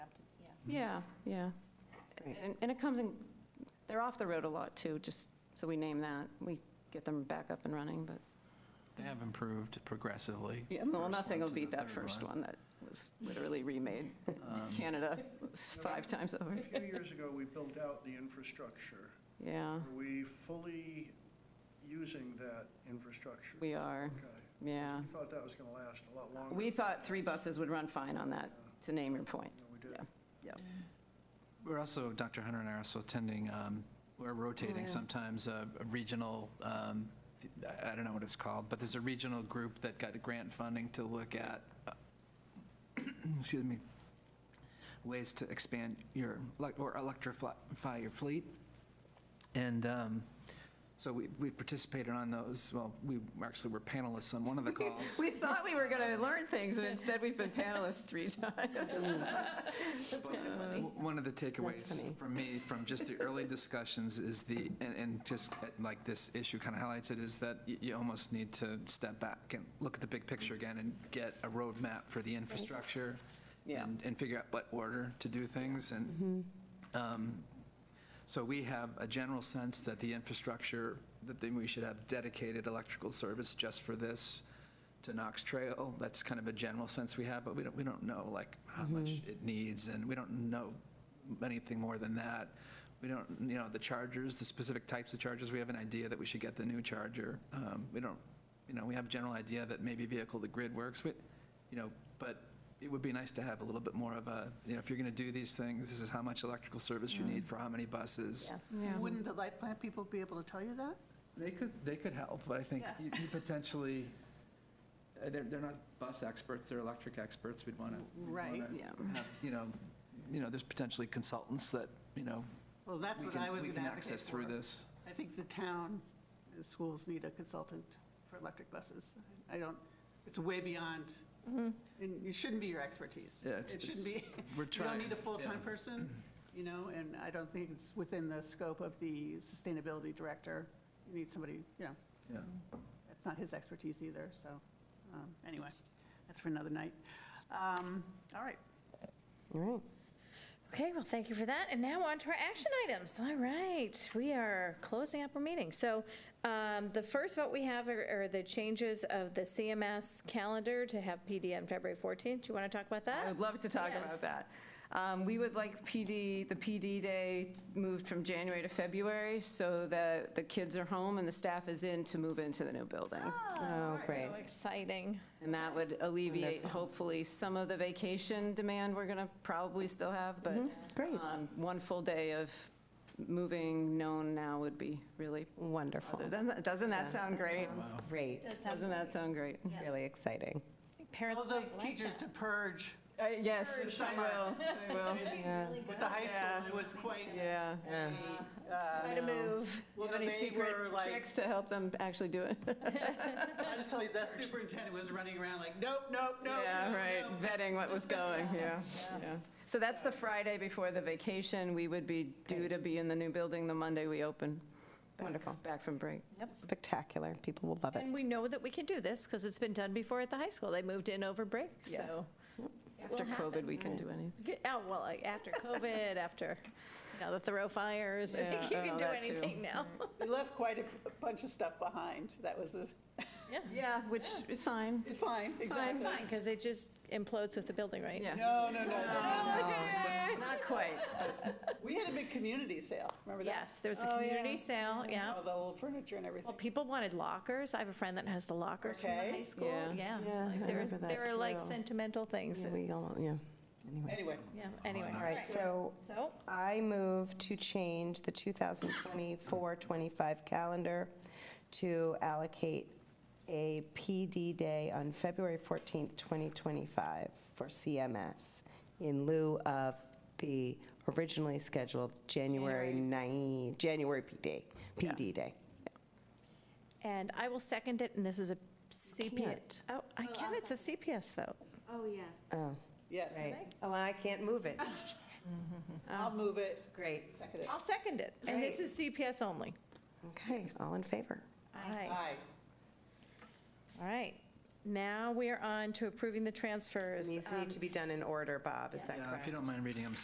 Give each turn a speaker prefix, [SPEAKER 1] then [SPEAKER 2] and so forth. [SPEAKER 1] Yeah, yeah.
[SPEAKER 2] Great.
[SPEAKER 1] And and it comes in, they're off the road a lot, too, just so we name that. We get them back up and running, but,
[SPEAKER 3] They have improved progressively.
[SPEAKER 1] yeah, well,
[SPEAKER 3] First
[SPEAKER 1] nothing will
[SPEAKER 3] one to
[SPEAKER 1] beat
[SPEAKER 3] the
[SPEAKER 1] that
[SPEAKER 3] third
[SPEAKER 1] first
[SPEAKER 3] one.
[SPEAKER 1] one that was literally remade in
[SPEAKER 3] Um,
[SPEAKER 1] Canada five times over.
[SPEAKER 2] Right.
[SPEAKER 4] A few years ago, we built out the infrastructure.
[SPEAKER 1] Yeah,
[SPEAKER 4] Are we fully using that infrastructure?
[SPEAKER 1] we are,
[SPEAKER 4] Okay.
[SPEAKER 1] yeah.
[SPEAKER 4] We thought that was going to last a lot longer.
[SPEAKER 1] We thought three buses would run fine on that, to name your point.
[SPEAKER 4] No, we did.
[SPEAKER 1] Yeah.
[SPEAKER 3] We're also, Dr. Hunter and I are also attending, um, we're rotating
[SPEAKER 1] Oh, yeah.
[SPEAKER 3] sometimes uh, a regional, um, I I don't know what it's called, but there's a regional group that got grant funding to look at, uh, excuse me, ways to expand your, elec- or electrify your fleet. And um, so we we participated on those, well, we actually were panelists on one of the calls.
[SPEAKER 1] We thought we were going to learn things, and instead we've been panelists three times.
[SPEAKER 3] That's kind of funny. One of the
[SPEAKER 1] funny.
[SPEAKER 3] takeaways from me, from just the early discussions is the, and, and just uh, like this issue kind of highlights it, is that you, you almost need to step back and look at the big picture again and get a roadmap for the infrastructure.
[SPEAKER 1] Yeah.
[SPEAKER 3] And, and figure out what order to do things and, um, so we have a general sense that the infrastructure, that then we should have dedicated electrical service just for this to Knox Trail. That's kind of a general sense we have, but we don't, we don't know like how much it needs and we don't know anything more than that. We don't, you know, the chargers, the specific types of chargers, we have an idea that we should get the new charger. Um, We don't, you know, we have a general idea that maybe vehicle to grid works with, you know, but it would be nice to have a little bit more of a, you know, if you're going to do these things, this is how much electrical service you
[SPEAKER 5] Mm.
[SPEAKER 3] need for how many buses.
[SPEAKER 1] Yeah.
[SPEAKER 5] Wouldn't the light plant people be able to tell you that?
[SPEAKER 3] They could, they could help, but I think
[SPEAKER 5] Yeah.
[SPEAKER 3] you you potentially, uh, they're, they're not bus experts, they're electric experts, we'd want to.
[SPEAKER 5] Right,
[SPEAKER 1] yeah.
[SPEAKER 3] You know, you know, there's potentially consultants that, you know.
[SPEAKER 5] Well, that's
[SPEAKER 3] we
[SPEAKER 5] what
[SPEAKER 3] can-
[SPEAKER 5] I was
[SPEAKER 3] we
[SPEAKER 5] going to
[SPEAKER 3] can
[SPEAKER 5] advocate
[SPEAKER 3] access through
[SPEAKER 5] for.
[SPEAKER 3] this.
[SPEAKER 5] I think the town, the schools need a consultant for electric buses. I don't, it's way beyond, and it shouldn't be your expertise.
[SPEAKER 3] Yeah, it's-
[SPEAKER 5] It shouldn't
[SPEAKER 3] it's-
[SPEAKER 5] be.
[SPEAKER 3] we're trying,
[SPEAKER 5] You don't need a full-time
[SPEAKER 3] yeah.
[SPEAKER 5] person, you know, and I don't think it's within the scope of the sustainability director. You need somebody, you know,
[SPEAKER 3] Yeah.
[SPEAKER 5] That's not his expertise either, so, um, anyway, that's for another night. Um, All right,
[SPEAKER 6] Okay, well, thank you for that. And now on to our action items. All right, we are closing up our meeting. So um, the first vote we have are are the changes of the CMS calendar to have PD on February 14th. Do you want to talk about
[SPEAKER 1] I
[SPEAKER 6] that?
[SPEAKER 1] would love to talk about
[SPEAKER 6] Yes.
[SPEAKER 1] that. Um, We would like PD, the PD day moved from January to February so that the kids are home and the staff is in to move into the new building.
[SPEAKER 6] Oh, great. So exciting.
[SPEAKER 1] And that would alleviate hopefully some of the vacation demand we're going to probably still have, but
[SPEAKER 7] Great.
[SPEAKER 1] um, one full day of moving known now would be really
[SPEAKER 7] Wonderful.
[SPEAKER 1] positive. Doesn't- Doesn't that sound great?
[SPEAKER 7] That's great.
[SPEAKER 1] Doesn't that sound great?
[SPEAKER 7] Really exciting.
[SPEAKER 6] Parents
[SPEAKER 5] all the
[SPEAKER 6] might like
[SPEAKER 5] teachers
[SPEAKER 6] that.
[SPEAKER 5] to purge
[SPEAKER 1] Uh, Yes, I will, I will,
[SPEAKER 5] with the high school, it was quite,
[SPEAKER 1] yeah.
[SPEAKER 5] uh,
[SPEAKER 6] Try to move.
[SPEAKER 5] well,
[SPEAKER 1] Any
[SPEAKER 5] they
[SPEAKER 1] secret
[SPEAKER 5] were like,
[SPEAKER 1] tricks to help them actually do it?
[SPEAKER 5] I just tell you, that superintendent was running around like, nope, nope, nope.
[SPEAKER 1] Yeah,
[SPEAKER 5] nope,
[SPEAKER 1] right,
[SPEAKER 5] nope."
[SPEAKER 1] vetting what was going, yeah, yeah. So that's the Friday before the vacation. We would be due to be in the new building the Monday we open. back-
[SPEAKER 7] Wonderful.
[SPEAKER 1] Back from break.
[SPEAKER 7] Spectacular. People will love it.
[SPEAKER 6] And we know that we can do this because it's been done before at the high school. They moved in over break, so.
[SPEAKER 1] After COVID, we can do anything.
[SPEAKER 6] Yeah, Oh, well, like, after COVID, after, now the Thoreau fires, I think you
[SPEAKER 1] Yeah, oh,
[SPEAKER 6] can do
[SPEAKER 1] that too.
[SPEAKER 6] anything now.
[SPEAKER 5] We left quite a f- a bunch of stuff behind, that was the,
[SPEAKER 1] Yeah, which is fine.
[SPEAKER 5] it's fine,
[SPEAKER 6] It's
[SPEAKER 5] exactly.
[SPEAKER 6] fine, because it just implodes with the building, right?
[SPEAKER 1] Yeah.
[SPEAKER 5] No, no, no, no.
[SPEAKER 1] Not quite.
[SPEAKER 5] We had a big community sale, remember that?
[SPEAKER 6] Yes, there was a
[SPEAKER 7] Oh,
[SPEAKER 6] community sale, yeah.
[SPEAKER 5] All the old furniture and everything.
[SPEAKER 6] Well, people wanted lockers. I have a friend that has the lockers from the
[SPEAKER 5] Okay.
[SPEAKER 6] high school,
[SPEAKER 1] Yeah.
[SPEAKER 6] yeah.
[SPEAKER 7] Yeah,
[SPEAKER 6] Like,
[SPEAKER 7] I
[SPEAKER 6] there-
[SPEAKER 7] remember that
[SPEAKER 6] There are like
[SPEAKER 7] too.
[SPEAKER 6] sentimental things,
[SPEAKER 7] Yeah,
[SPEAKER 6] and-
[SPEAKER 7] We all, yeah. Anyway.
[SPEAKER 5] Anyway,
[SPEAKER 6] yeah, anyway.
[SPEAKER 7] All right, so
[SPEAKER 6] So,
[SPEAKER 7] I move to change the 2024-25 calendar to allocate a PD day on February 14th, 2025 for CMS in lieu of the originally scheduled January 9, January PD, PD day.
[SPEAKER 6] and I will second it, and this is a CPS.
[SPEAKER 7] can't.
[SPEAKER 6] Oh, I can, it's a CPS vote.
[SPEAKER 8] Oh, yeah.
[SPEAKER 7] Oh,
[SPEAKER 5] yes,
[SPEAKER 7] right. Oh, I can't move it.
[SPEAKER 5] I'll move it,
[SPEAKER 7] Great.
[SPEAKER 5] second it.
[SPEAKER 6] I'll second it, and this
[SPEAKER 7] Great.
[SPEAKER 6] is CPS only.
[SPEAKER 7] Okay, all in favor?
[SPEAKER 6] Aye.
[SPEAKER 5] Aye.
[SPEAKER 6] All right. Now we are on to approving the Um, transfers.
[SPEAKER 7] These
[SPEAKER 6] Um,
[SPEAKER 7] need to be done in order, Bob, is that
[SPEAKER 3] Yeah,
[SPEAKER 7] correct?
[SPEAKER 3] If you don't mind reading them